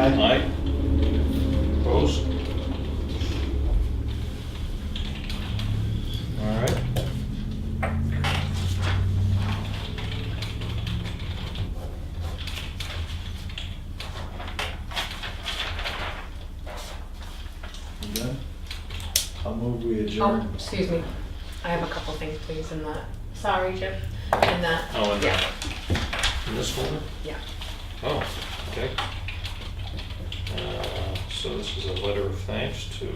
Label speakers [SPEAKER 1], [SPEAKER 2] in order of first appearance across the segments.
[SPEAKER 1] Aye. Opposed? All right.
[SPEAKER 2] You done? I'll move we
[SPEAKER 3] Oh,
[SPEAKER 2] adjourn.
[SPEAKER 3] excuse me. I have a couple things, please, in that. Sorry, Jim. In that,
[SPEAKER 1] Oh, and
[SPEAKER 3] yeah,
[SPEAKER 1] in this folder?
[SPEAKER 3] yeah.
[SPEAKER 1] Oh, okay. Uh, So this is a letter of thanks to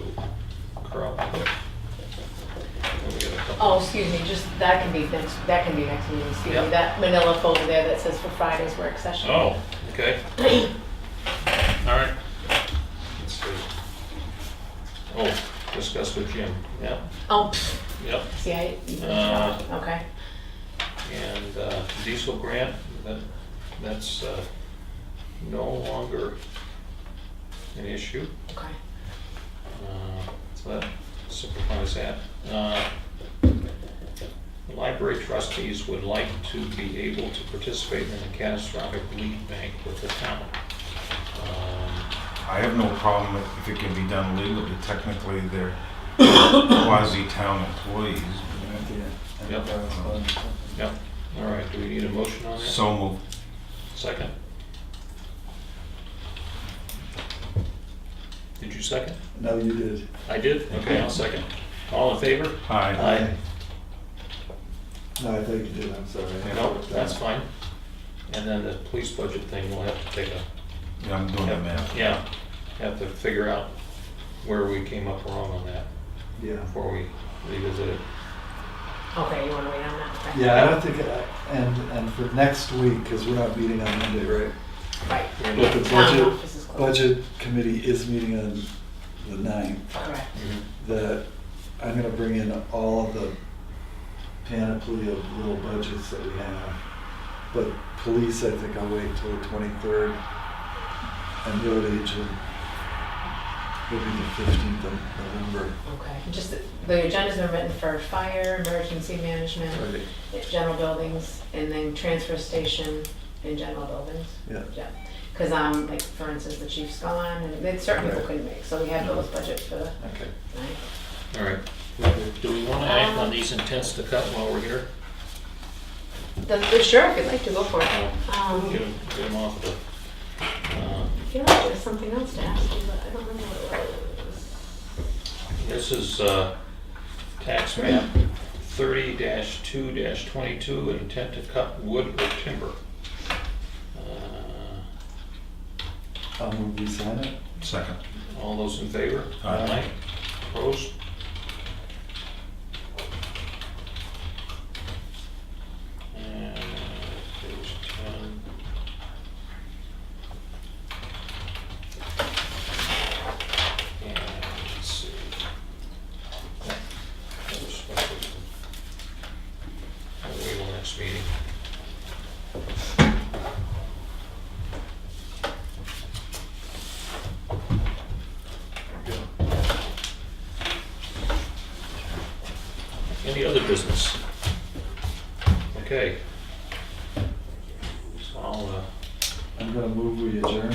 [SPEAKER 1] Carl. And we got a couple-
[SPEAKER 3] Oh, excuse me, just, that can be next, that can be next meeting, excuse
[SPEAKER 1] Yeah.
[SPEAKER 3] me. That manila folder there that says for Friday's work session.
[SPEAKER 1] Oh, okay. All right. Let's see. Oh, discuss with Jim, yeah,
[SPEAKER 3] Oh, pfft,
[SPEAKER 1] yep.
[SPEAKER 3] see, I, you can
[SPEAKER 1] Uh.
[SPEAKER 3] tell. okay.
[SPEAKER 1] And uh, diesel grant, that, that's uh, no longer an issue.
[SPEAKER 3] Okay.
[SPEAKER 1] Uh, So that simplifies that. Uh, The library trustees would like to be able to participate in a catastrophic lead bank with the town. Um,
[SPEAKER 4] I have no problem if- if it can be done legally. Technically, they're quasi-town employees.
[SPEAKER 1] Yep.
[SPEAKER 2] uh,
[SPEAKER 1] Yeah, all right, do we need a motion on that?
[SPEAKER 4] So moved.
[SPEAKER 1] Second? Did you second?
[SPEAKER 2] No, you did.
[SPEAKER 1] I did? Okay, I'll second. All in favor?
[SPEAKER 4] Aye.
[SPEAKER 1] Aye.
[SPEAKER 2] No, I thought you did, I'm sorry.
[SPEAKER 1] No, that's fine. And then the police budget thing, we'll have to take a
[SPEAKER 4] Yeah, I'm doing the math.
[SPEAKER 1] Yeah, have to figure out where we came up wrong on that
[SPEAKER 2] Yeah.
[SPEAKER 1] before we revisit it.
[SPEAKER 3] Okay, you wanna wait on that? Okay.
[SPEAKER 2] Yeah, I don't think, I- and, and for next week, because we're not meeting on Monday, right?
[SPEAKER 3] Right.
[SPEAKER 1] We're
[SPEAKER 2] But the
[SPEAKER 1] not-
[SPEAKER 3] Town
[SPEAKER 2] budget,
[SPEAKER 3] office is closed.
[SPEAKER 2] budget committee is meeting on the ninth.
[SPEAKER 3] Correct.
[SPEAKER 1] Mhm.
[SPEAKER 2] That I'm gonna bring in all of the panoply of little budgets that we have. But police, I think I'll wait till the twenty-third. And road agent will be the fifteenth of November.
[SPEAKER 3] Okay, just, the- the agendas are written for fire, emergency management,
[SPEAKER 2] Right,
[SPEAKER 3] general buildings, and then transfer station and general buildings.
[SPEAKER 2] yeah.
[SPEAKER 3] Yeah, because um, like for instance, the chief's gone, and then certain people
[SPEAKER 2] Right.
[SPEAKER 3] couldn't make, so we had those budget for the
[SPEAKER 2] Okay.
[SPEAKER 3] night.
[SPEAKER 1] All right. Do we want to act on these intents to cut while we're here?
[SPEAKER 3] The, the sheriff, would like to go for it. Um,
[SPEAKER 1] Get them, get 'em off the, uh,
[SPEAKER 3] I feel like there's something else to ask you, but I don't remember what it was.
[SPEAKER 1] this is uh, tax map thirty two twenty-two, intent to cut wood or timber. Uh,
[SPEAKER 2] I'll move we sign it.
[SPEAKER 4] Second.
[SPEAKER 1] All those in favor?
[SPEAKER 4] Aye.
[SPEAKER 1] Opposed? And page 10. And let's see. That was what we- I'll wait till next meeting. Any other business? Okay. So I'll, uh,
[SPEAKER 2] I'm gonna move we adjourn.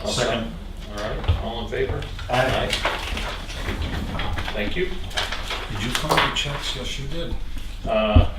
[SPEAKER 1] I'll
[SPEAKER 4] Second.
[SPEAKER 1] All right, all in favor?
[SPEAKER 2] Aye.
[SPEAKER 1] Thank you.
[SPEAKER 4] Did you call the checks? Yes, you did.
[SPEAKER 1] Uh,